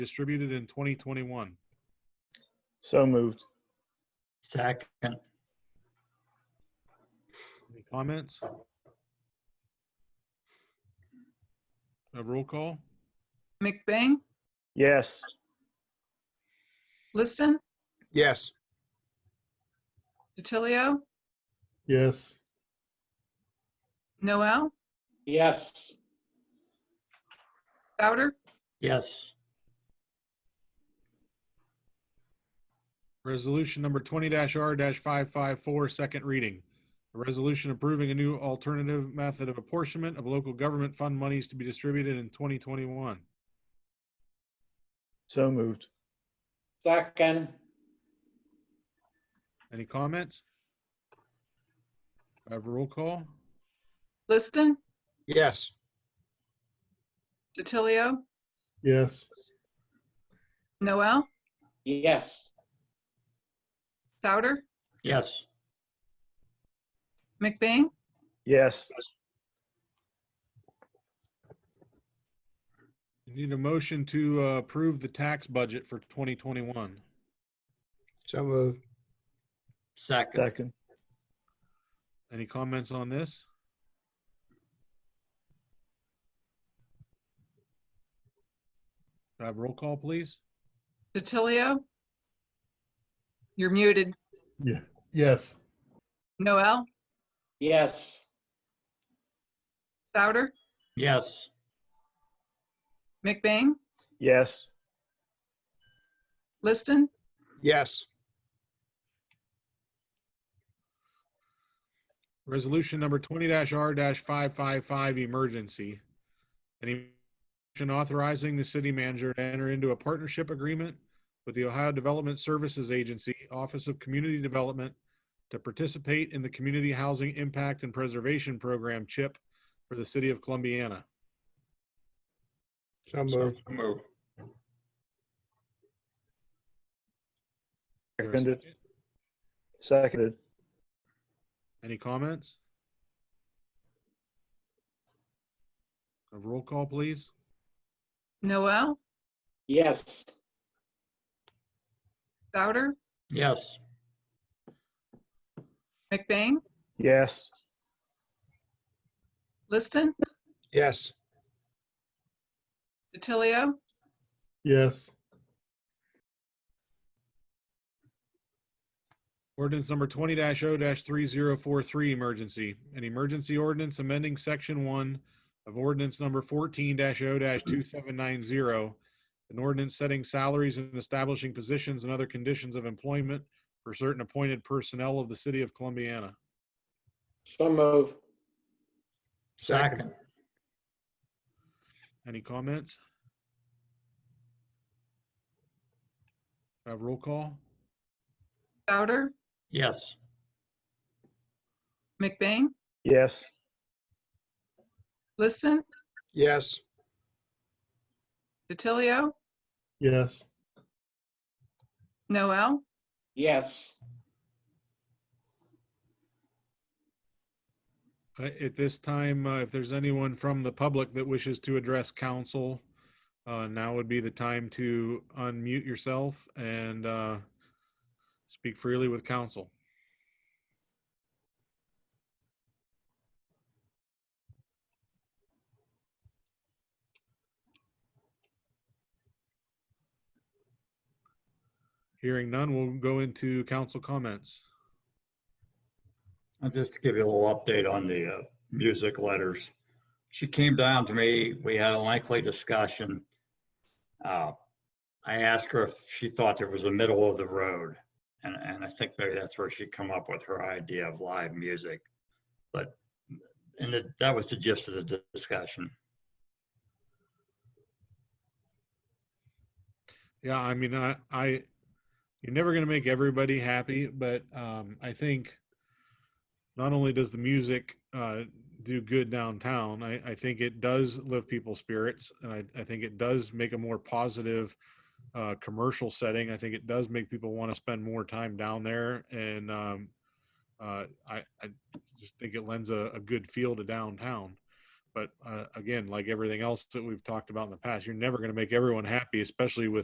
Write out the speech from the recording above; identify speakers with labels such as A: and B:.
A: distributed in 2021.
B: So moved.
C: Second.
A: Any comments? A roll call?
D: McBain,
B: Yes.
D: Liston,
E: Yes.
D: DiTilio,
F: yes,
D: Noel,
G: yes,
D: Souter,
C: Yes.
A: Resolution number twenty R five five four, second reading. A resolution approving a new alternative method of apportionment of local government fund monies to be distributed in twenty twenty-one.
B: So moved.
G: second,
A: Any comments? Have a roll call?
D: Liston,
E: Yes.
D: DiTilio,
F: yes,
D: Noel,
G: yes,
D: Souter,
C: Yes.
D: McBain,
B: Yes.
A: You Need a motion to uh, approve the tax budget for twenty twenty-one.
E: So moved.
C: Second.
B: Second.
A: Any comments on this? Could I Have a roll call, please?
D: DiTilio. You're muted.
F: yeah, yes,
D: Noel,
G: yes,
D: Souter,
C: Yes.
D: McBain,
B: Yes.
D: Liston,
E: Yes.
A: Resolution number twenty R five five five, emergency. Any motion authorizing the city manager to enter into a partnership agreement with the Ohio Development Services Agency, Office of Community Development, to participate in the Community Housing Impact and Preservation Program, CHIP, for the city of Columbiana.
E: So moved. Move.
A: Is there a
B: Seconded.
A: second?
B: Seconded.
A: Any comments? A roll call, please.
D: Noel,
G: yes,
D: Souter,
C: Yes.
D: McBain,
B: Yes.
D: Liston,
E: Yes.
D: DiTilio,
F: yes,
A: Ordinance number twenty 0 three zero four three, emergency. An emergency ordinance amending section one of ordinance number fourteen 0 two seven nine zero. An ordinance setting salaries and establishing positions and other conditions of employment for certain appointed personnel of the city of Columbiana.
G: so move,
C: Second.
A: Any comments? Have roll call?
D: Souter,
C: Yes.
D: McBain,
B: Yes.
D: Liston,
E: Yes.
D: DiTilio,
F: yes,
D: Noel,
G: yes,
A: Uh, At this time, uh, if there's anyone from the public that wishes to address council, uh, now would be the time to unmute yourself and uh, speak freely with council. Hearing none, we'll go into council comments.
C: I'll just give you a little update on the uh, music letters. She came down to me. We had a lengthy discussion. Uh, I asked her if she thought there was a middle of the road. And, and I think maybe that's where she come up with her idea of live music. But, and that- that was the gist of the di- discussion.
A: Yeah, I mean, I, I, you're never going to make everybody happy, but um, I think not only does the music uh, do good downtown, I, I think it does lift people's spirits, and I, I think it does make a more positive uh, commercial setting. I think it does make people want to spend more time down there, and um, uh, I, I just think it lends a, a good feel to downtown. But uh, again, like everything else that we've talked about in the past, you're never going to make everyone happy, especially with